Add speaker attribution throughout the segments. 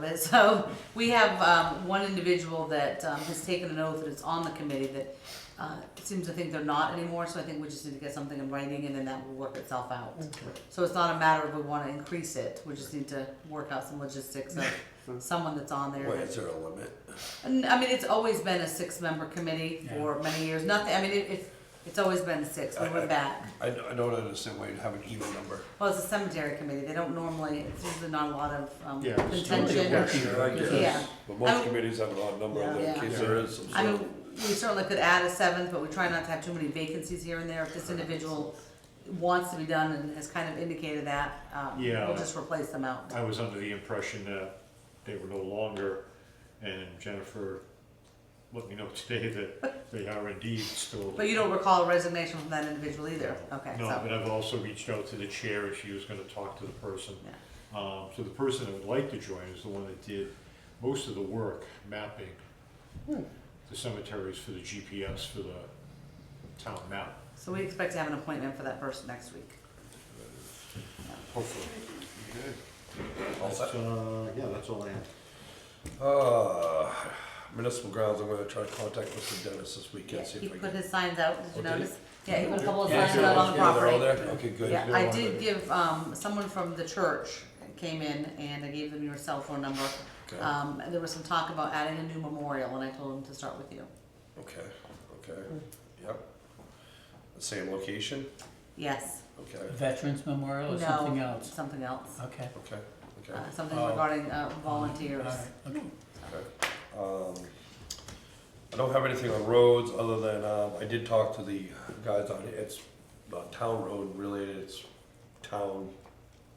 Speaker 1: But So we have um, one individual that um, has taken an oath and is on the committee that uh, seems to think they're not anymore, so I think we just need to get something in writing and then that will work itself out. So it's not a matter of we want to increase it, we just need to work out some logistics of someone that's on there.
Speaker 2: Wait, is there a limit?
Speaker 1: And, I mean, it's always been a six-member committee for many years, nothing, I mean, it- it's, it's always been six, we went back.
Speaker 2: I, I don't understand why you have an even number.
Speaker 1: Well, it's a cemetery committee, they don't normally, it's usually not a lot of um,
Speaker 3: Yeah, it's
Speaker 1: contention. Yeah.
Speaker 2: But
Speaker 1: I
Speaker 2: most
Speaker 1: mean-
Speaker 2: committees have an odd number in there in
Speaker 1: Yeah.
Speaker 2: case there is some
Speaker 1: I
Speaker 2: sort
Speaker 1: mean,
Speaker 2: of.
Speaker 1: we certainly could add a seventh, but we try not to have too many vacancies here and there. If this individual wants to be done and has kind of indicated that, um,
Speaker 3: Yeah.
Speaker 1: we'll just replace them out.
Speaker 3: I was under the impression that they were no longer, and Jennifer let me know today that they are indeed still.
Speaker 1: But you don't recall a resignation from that individual either? Okay,
Speaker 3: No, but
Speaker 1: so,
Speaker 3: I've also reached out to the chair, and she was gonna talk to the person.
Speaker 1: Yeah.
Speaker 3: Um, so the person that would like to join is the one that did most of the work mapping
Speaker 1: Hmm.
Speaker 3: the cemeteries for the GPS for the town map,
Speaker 1: so we expect to have an appointment for that person next week.
Speaker 3: hopefully.
Speaker 2: All
Speaker 3: That's,
Speaker 2: set.
Speaker 3: uh, yeah, that's all I have.
Speaker 2: Uh, municipal grounds, I'm gonna try to contact Mr. Dennis this
Speaker 1: Yeah,
Speaker 2: weekend, see
Speaker 1: He
Speaker 2: if I
Speaker 1: put
Speaker 2: can.
Speaker 1: his signs out, did you
Speaker 2: Oh, did he?
Speaker 1: notice? Yeah, he put a couple of
Speaker 2: Yeah,
Speaker 1: signs
Speaker 2: they're
Speaker 1: out
Speaker 2: all-
Speaker 1: on the
Speaker 2: yeah, they're all
Speaker 1: property.
Speaker 2: there? Okay, good.
Speaker 1: Yeah, I did give, um, someone from the church came in and I gave them your cell phone number.
Speaker 2: Okay.
Speaker 1: Um, and there was some talk about adding a new memorial and I told them to start with you.
Speaker 2: Okay, okay, yep. The same location?
Speaker 1: Yes.
Speaker 2: Okay,
Speaker 4: Veterans Memorial or
Speaker 1: No,
Speaker 4: Oh, something else?
Speaker 1: Something else.
Speaker 4: Okay.
Speaker 2: okay, okay,
Speaker 1: Uh, something
Speaker 4: Oh.
Speaker 1: regarding uh,
Speaker 4: All
Speaker 1: volunteers.
Speaker 4: right, okay.
Speaker 2: okay. Um, I don't have anything on roads, other than, um, I did talk to the guys on, it's not town road related, it's town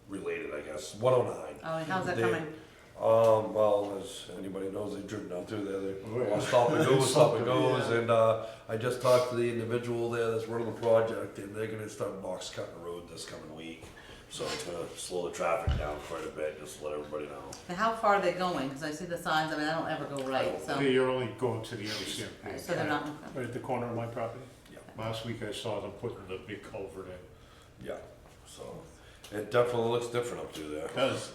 Speaker 2: related, I guess, one oh nine.
Speaker 1: Oh, and how's that
Speaker 2: They-
Speaker 1: coming?
Speaker 2: Um, well, as anybody knows, they've driven down through there,
Speaker 3: Oh,
Speaker 2: they
Speaker 3: yeah.
Speaker 2: well, stop and go, stop and goes,
Speaker 3: Yeah.
Speaker 2: and, uh, I just talked to the individual there that's running the project, and they're gonna start box cutting the road this coming week. So it's gonna slow the traffic down quite a bit, just to let everybody know.
Speaker 1: And how far are they going? Because I see the signs. I mean, I don't ever go right,
Speaker 4: Oh,
Speaker 1: so
Speaker 3: Hey, You're only going to the other cemetery.
Speaker 1: so they're not.
Speaker 3: Right at the corner of my property?
Speaker 2: Yeah.
Speaker 3: Last week I saw them putting the big culvert in.
Speaker 2: Yeah, so, it definitely looks different up through there.
Speaker 3: Does.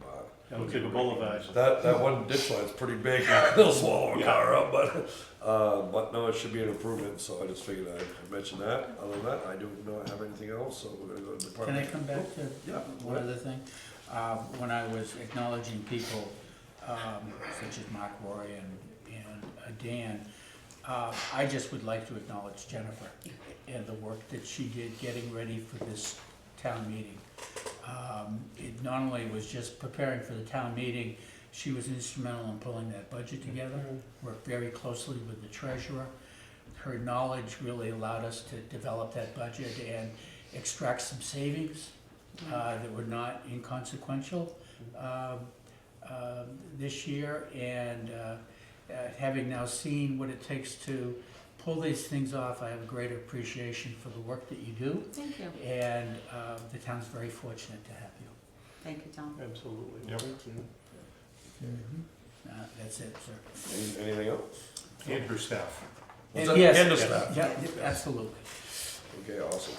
Speaker 2: But
Speaker 3: That looks like a boulevard.
Speaker 2: That, that one ditch line's pretty big, they'll swallow a car up, but, uh, but no, it should be an improvement, so I just figured I'd mention that. Other than that, I do not have anything else, so we're gonna go to
Speaker 4: Can I
Speaker 2: department.
Speaker 4: come back to
Speaker 2: Yeah,
Speaker 4: one other thing? Um, When I was acknowledging people um, such as Mark Rory and, and uh, Dan, uh, I just would like to acknowledge Jennifer and the work that she did getting ready for this town meeting. Um, It not only was just preparing for the town meeting, she was instrumental in pulling that budget together, worked very closely with the treasurer. Her knowledge really allowed us to develop that budget and extract some savings uh, that were not inconsequential um, um, this year. And uh, uh, having now seen what it takes to pull these things off, I have a greater appreciation for the work that you do.
Speaker 1: Thank you.
Speaker 4: And uh, the town's very fortunate to have you.
Speaker 1: Thank you, Tom.
Speaker 5: Absolutely.
Speaker 3: Yep.
Speaker 5: Thank you.
Speaker 4: Uh, That's it, sir.
Speaker 2: Any- Anything else?
Speaker 3: And her staff.
Speaker 2: Was
Speaker 4: And
Speaker 2: that
Speaker 4: Uh, yes,
Speaker 2: the end of
Speaker 3: yes.
Speaker 2: that?
Speaker 4: Yeah, yeah, absolutely.
Speaker 2: Okay, awesome.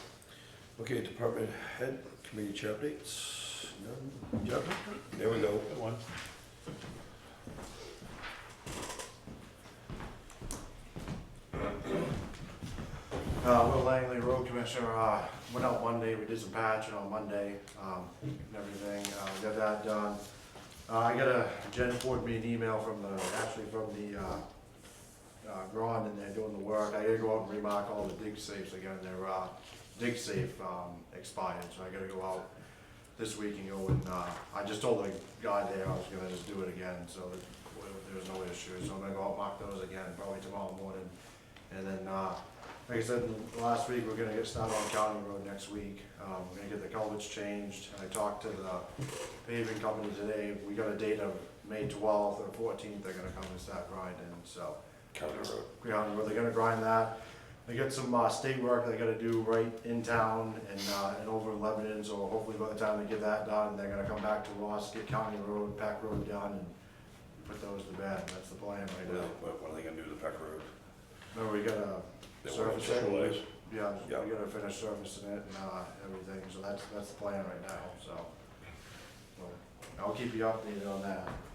Speaker 2: Okay, department head, committee chair updates. None? Yep, there we go.
Speaker 3: That one.
Speaker 5: Uh, Will Langley, road commissioner, uh, went out one day, we did some patching on Monday, um, and everything, uh, we got that done. Uh, I got a, Jen forwarded me an email from the, actually from the, uh, uh, Ron in there doing the work, I gotta go out and remark all the dig safes again, they're, uh, dig safe, um, expired, so I gotta go out this week and go and, uh, I just told the guy there I was gonna just do it again, so that there was no issue, so I'm gonna go out and mark those again, probably tomorrow morning. And then, uh, like I said, last week, we're gonna get started on County Road next week, um, we're gonna get the culverts changed, and I talked to the paving company today, we got a date of May twelfth or fourteenth, they're gonna come and start grinding, so.
Speaker 2: County road.
Speaker 5: Ground, where they're gonna grind that. They got some, uh, state work they gotta do right in town and, uh, and over in Lebanon, so hopefully by the time they get that done, they're gonna come back to us, get County Road, Pack Road done, and put those to bed, that's the plan right
Speaker 2: Well,
Speaker 5: now.
Speaker 2: What what are they gonna do to the Peck Road?
Speaker 5: Remember, we gotta
Speaker 2: They want
Speaker 5: surface
Speaker 2: to
Speaker 5: it,
Speaker 2: fertilize?
Speaker 5: yeah, we
Speaker 2: Yeah.
Speaker 5: gotta finish surfacing it and, uh, everything, so that's, that's the plan right now, so. Well, I'll keep you updated on that.